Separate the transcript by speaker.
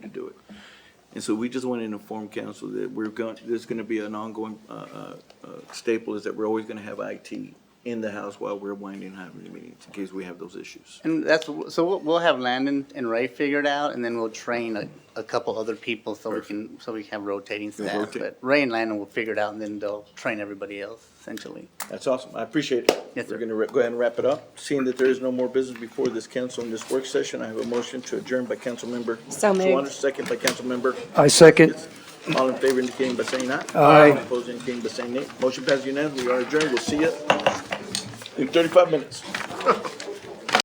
Speaker 1: And so we just want to inform council that we're going, there's going to be an ongoing uh, uh, uh, staple is that we're always going to have IT in the house while we're winding, having the meetings, in case we have those issues.
Speaker 2: And that's, so we'll, we'll have Landon and Ray figured out, and then we'll train a, a couple other people so we can, so we can have rotating staff.
Speaker 1: rotate.
Speaker 2: But Ray and Landon will figure it out, and then they'll train everybody else, essentially.
Speaker 1: That's awesome. I appreciate it.
Speaker 2: Yes, sir.
Speaker 1: We're going to go ahead and wrap it up. Seeing that there is no more business before this council in this work session, I have a motion to adjourn by council member.
Speaker 3: So moved.
Speaker 1: Shawana, Second by council member.
Speaker 4: I second.
Speaker 1: All in favor indicating by saying aye.
Speaker 4: Aye.
Speaker 1: All Opposed indicating by saying nay. Motion passes unanimously. We are adjourned. We'll see you in thirty-five minutes.